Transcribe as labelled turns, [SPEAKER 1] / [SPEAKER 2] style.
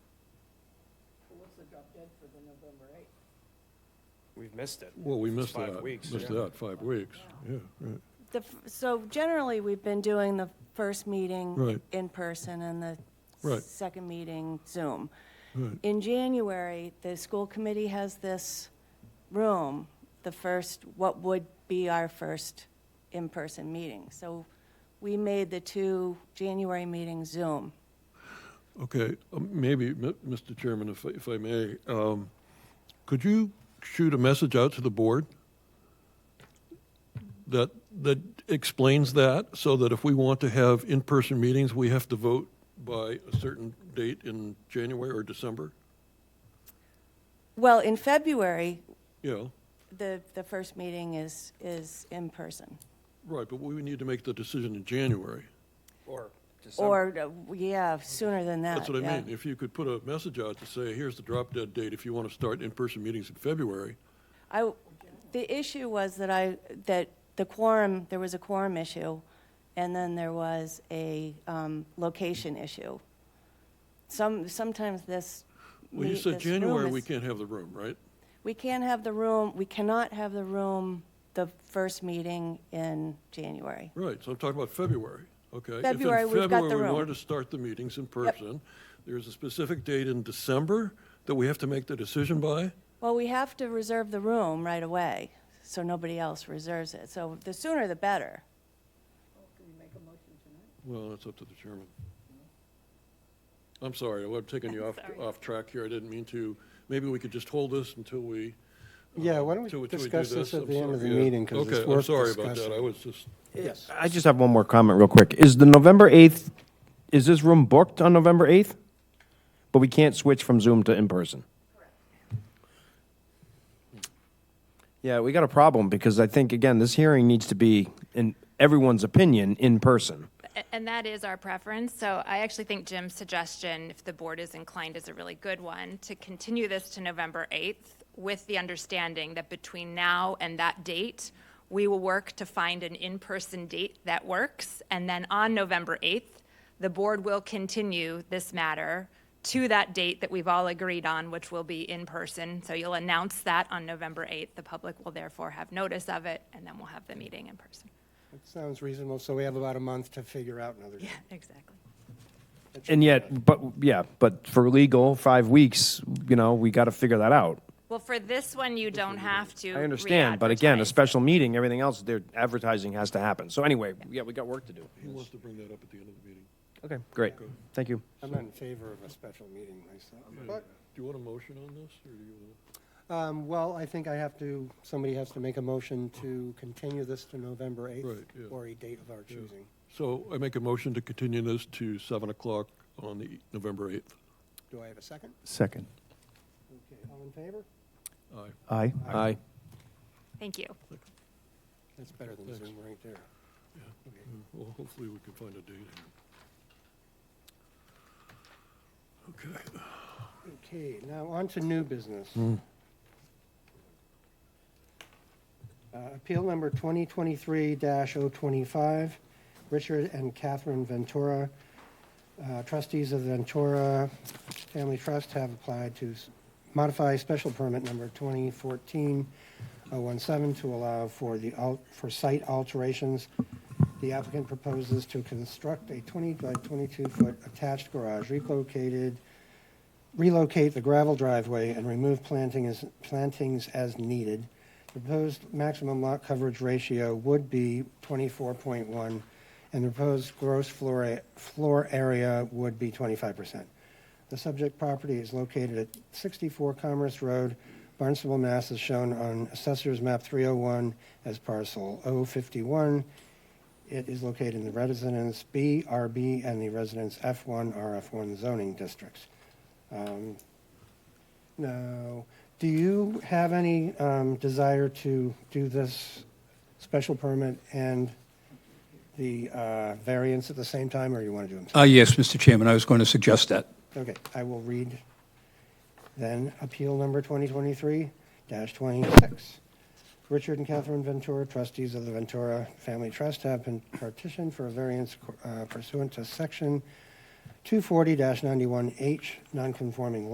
[SPEAKER 1] also dropped dead for the November eighth.
[SPEAKER 2] We've missed it.
[SPEAKER 3] Well, we
[SPEAKER 2] It's
[SPEAKER 3] missed
[SPEAKER 2] five
[SPEAKER 3] that,
[SPEAKER 2] weeks,
[SPEAKER 3] missed
[SPEAKER 2] yeah.
[SPEAKER 3] that, five weeks, yeah, right.
[SPEAKER 4] The, f- so generally, we've been doing the first meeting
[SPEAKER 3] Right.
[SPEAKER 4] in person and the
[SPEAKER 3] Right.
[SPEAKER 4] second meeting Zoom.
[SPEAKER 3] Right.
[SPEAKER 4] In January, the school committee has this room, the first, what would be our first in-person meeting. So we made the two January meetings Zoom.
[SPEAKER 3] Okay, um, maybe, M- Mr. Chairman, if, I- if I may, um, could you shoot a message out to the board? That, that explains that, so that if we want to have in-person meetings, we have to vote by a certain date in January or December?
[SPEAKER 4] Well, in February,
[SPEAKER 3] Yeah,
[SPEAKER 4] the, the first meeting is, is in person.
[SPEAKER 3] right, but we need to make the decision in January.
[SPEAKER 2] Or December.
[SPEAKER 4] Or, uh, yeah, sooner than that.
[SPEAKER 3] That's what I
[SPEAKER 4] yeah.
[SPEAKER 3] mean. If you could put a message out to say, here's the drop dead date if you want to start in-person meetings in February.
[SPEAKER 4] I, the issue was that I, that the quorum, there was a quorum issue, and then there was a um, location issue. Some, sometimes this.
[SPEAKER 3] Well, you
[SPEAKER 4] meet-
[SPEAKER 3] said
[SPEAKER 4] this room
[SPEAKER 3] January, we
[SPEAKER 4] is-
[SPEAKER 3] can't have the room, right?
[SPEAKER 4] We can't have the room, we cannot have the room the first meeting in January.
[SPEAKER 3] Right, so I'm talking about February, okay? If in
[SPEAKER 4] February, we've got the
[SPEAKER 3] February, we
[SPEAKER 4] room.
[SPEAKER 3] wanted to start the meetings in person. There's a specific date in December that we have to make the decision by?
[SPEAKER 4] Well, we have to reserve the room right away, so nobody else reserves it. So the sooner the better.
[SPEAKER 1] Can we make a motion tonight?
[SPEAKER 3] Well, that's up to the chairman. I'm sorry, I'm taking you off, off track here. I didn't mean to. Maybe we could just hold this until we.
[SPEAKER 5] Yeah, why don't we
[SPEAKER 3] till till
[SPEAKER 5] discuss
[SPEAKER 3] Um, do
[SPEAKER 5] this at
[SPEAKER 3] I'm
[SPEAKER 5] the end of
[SPEAKER 3] sorry,
[SPEAKER 5] the
[SPEAKER 3] yeah.
[SPEAKER 5] meeting, 'cause it's worth
[SPEAKER 3] Okay, I'm sorry about that.
[SPEAKER 5] discussing.
[SPEAKER 3] I was just,
[SPEAKER 5] Yes.
[SPEAKER 6] I just have one more comment real quick. Is the November 8th, is this room booked on November 8th? But we can't switch from Zoom to in-person? Yeah, we got a problem because I think, again, this hearing needs to be, in everyone's opinion, in person.
[SPEAKER 7] A- And that is our preference. So I actually think Jim's suggestion, if the board is inclined, is a really good one, to continue this to November 8th with the understanding that between now and that date, we will work to find an in-person date that works. And then on November 8th, the board will continue this matter to that date that we've all agreed on, which will be in person. So you'll announce that on November 8th. The public will therefore have notice of it, and then we'll have the meeting in person.
[SPEAKER 5] That sounds reasonable, so we have about a month to figure out another.
[SPEAKER 7] Yeah, exactly.
[SPEAKER 6] And yet, but, yeah, but for legal, five weeks, you know, we got to figure that out.
[SPEAKER 7] Well, for this one, you don't have to.
[SPEAKER 6] I understand, but again, a
[SPEAKER 7] re-advertise.
[SPEAKER 6] special meeting, everything else, their advertising has to happen. So anyway, yeah, we got work to do.
[SPEAKER 3] he wants to bring that up at the end of the meeting.
[SPEAKER 6] Okay, great. Thank you.
[SPEAKER 5] I'm not in favor of a special meeting myself.
[SPEAKER 3] Do you want a motion on this, or do you want to?
[SPEAKER 5] But, um, well, I think I have to, somebody has to make a motion to continue this to November 8th.
[SPEAKER 3] Right, yeah.
[SPEAKER 5] Or a date of our choosing.
[SPEAKER 3] So I make a motion to continue this to 7 o'clock on the November 8th.
[SPEAKER 5] Do I have a second?
[SPEAKER 6] Second.
[SPEAKER 5] Okay, all in favor?
[SPEAKER 3] Aye.
[SPEAKER 6] Aye. Aye.
[SPEAKER 7] Thank you.
[SPEAKER 5] That's better than
[SPEAKER 3] Thanks.
[SPEAKER 5] Zoom right there.
[SPEAKER 3] Well, hopefully we can find a date here. Okay.
[SPEAKER 5] Okay, now on to new business. Uh, Appeal number 2023-025, Richard and Catherine Ventura. Uh, Trustees of the Ventura Family Trust have applied to s- modify special permit number 2014-017 to allow for the, al- for site alterations. The applicant proposes to construct a 20 by 22-foot attached garage relocated relocate the gravel driveway and remove planting as, plantings as needed. The Proposed maximum lot coverage ratio would be 24.1, and the proposed gross floor, a- floor area would be 25%. The subject property is located at 64 Commerce Road, Barnstable, Mass. is shown on Assessor's Map 301 as parcel 051. It is located in the Residence B, RB, and the Residence F1, RF1 zoning districts. Um, Now, do you have any um, desire to do this special permit and the uh, variance at the same time, or you want to do them?
[SPEAKER 8] Uh, Yes, Mr. Chairman, I was going to suggest that.
[SPEAKER 5] Okay, I will read then Appeal Number 2023-26. Richard and Catherine Ventura, trustees of the Ventura Family Trust, have been partitioned for a variance uh, pursuant to Section 240-91H, nonconforming